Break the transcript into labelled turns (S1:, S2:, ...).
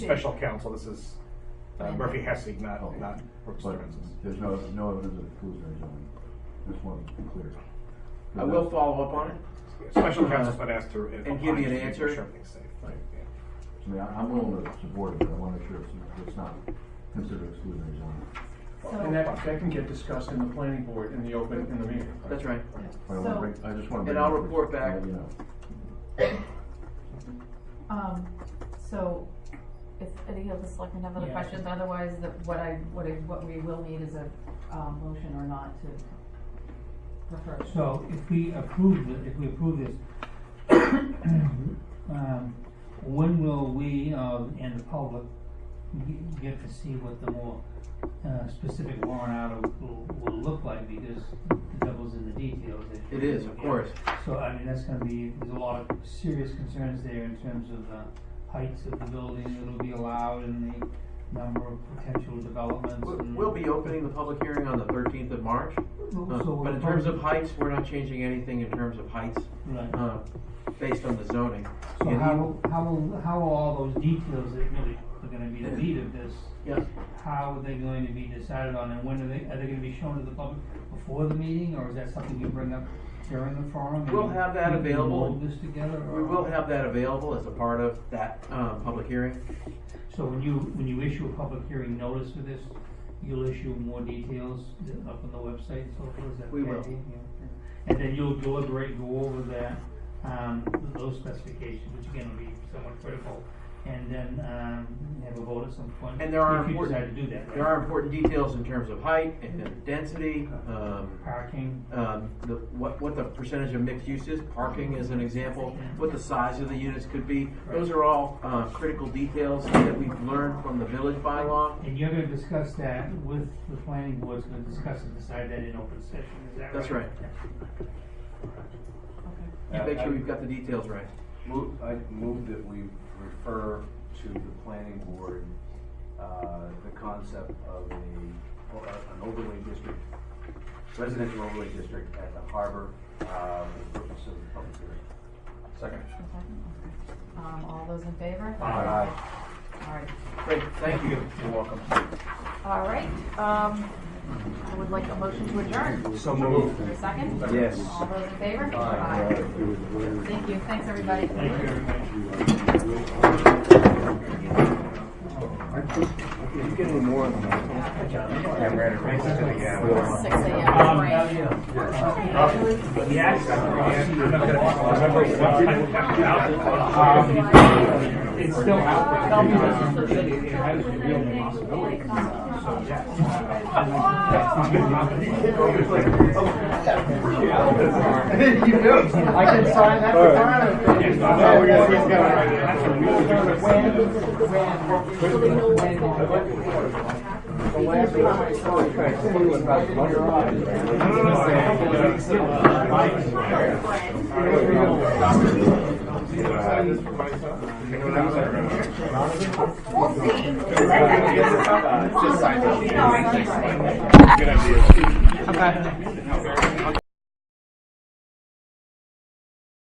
S1: special counsel, this is uh, Murphy Hessig, not, not Brooks
S2: But
S1: Stearns.
S2: there's no, no evidence of exclusionary zoning. Just want to be clear.
S3: I will follow up on it.
S1: Special counsel's been asked to.
S3: And give me an answer.
S1: Everything's safe.
S2: Right.
S1: Yeah.
S2: I mean, I- I'm willing to support it, but I want to make sure it's, it's not considered exclusionary zoning.
S4: And that, that can get discussed in the planning board in the open, in the meeting.
S3: That's right.
S2: But I want to
S5: So-
S2: bring, I just want to.
S3: And I'll report back.
S2: You know,
S5: Um, so, if any of the selectmen have other
S6: Yeah.
S5: questions, otherwise, that what I, what I, what we will need is a, um, motion or not to refer.
S6: So if we approve, the- if we approve this, um, when will we uh, and the public g- get to see what the more uh, specific warrant article will look like? Because the devil's in the details. as
S3: It is, of
S6: usual.
S3: course.
S6: So, I mean, that's gonna be, there's a lot of serious concerns there in terms of the heights of the building that'll be allowed and the number of potential developments.
S3: We'll-
S6: and-
S3: We'll be opening the public hearing on the thirteenth of March. Uh,
S6: So
S3: But in terms of heights, we're not changing anything in terms of heights,
S6: Right.
S3: uh, based on the zoning.
S6: So
S3: And
S6: how,
S3: you-
S6: will- how will, how will all those details that really are gonna be the meat of this,
S3: Yes,
S6: how are they going to be decided on and when are they, are they gonna be shown to the public before the meeting or is that something you bring up during the forum? and
S3: We'll have that
S6: you can
S3: available.
S6: Hold this together or?
S3: we will have that available as a part of that, um, public hearing.
S6: So when you, when you issue a public hearing notice for this, you'll issue more details up on the website and so forth, is that?
S3: We
S6: okay?
S3: will.
S6: Yeah, okay. And then you'll deliberate, go over that, um, those specifications, which again will be somewhat critical, and then, um, have a vote at some point.
S3: And there are
S6: If you
S3: important-
S6: decide to do that, right?
S3: There are important details in terms of height and then density, um,
S6: Parking,
S3: um, the, what, what the percentage of mixed use is, parking is an example, what the size of the units could be. Those are all, uh, critical details that we've learned from the village bylaw.
S6: and you're gonna discuss that with, the planning board's gonna discuss and decide that in open session, is that right?
S3: That's right.
S5: Okay.
S3: You make sure we've got the details right.
S7: Move, I move that we refer to the planning board, uh, the concept of a, or an overlay district, residential overlay district at the harbor, uh, for the purpose of the public hearing.
S5: A
S7: Second.
S5: second? Okay. Um, all those in favor?
S7: Aye.
S5: All right,
S3: Great, thank you.
S7: You're welcome.
S5: all right, um, I would like a motion to adjourn.
S7: So moved.
S5: A second?
S7: Yes.
S5: All those in favor?
S7: Aye.
S5: Aye. Thank you, thanks, everybody.
S6: Thank you, everybody.
S7: You get any more on that?
S1: Yeah, we're at a race to the gap.
S5: Six AM,
S6: Um,
S5: right?
S1: Yes, I'm not gonna- I remember when I was out, um, It's still out there. Um, It it has a real possibility.
S5: uh,
S1: So, yeah. That's not good
S7: You know, I can sign that tomorrow.
S1: Yes, I know, we gotta see it's gonna- that's a real difference.
S7: The last time I saw you, I told you about the money.
S1: No, no, no, I-
S5: No, I-
S1: Good idea.
S3: Okay.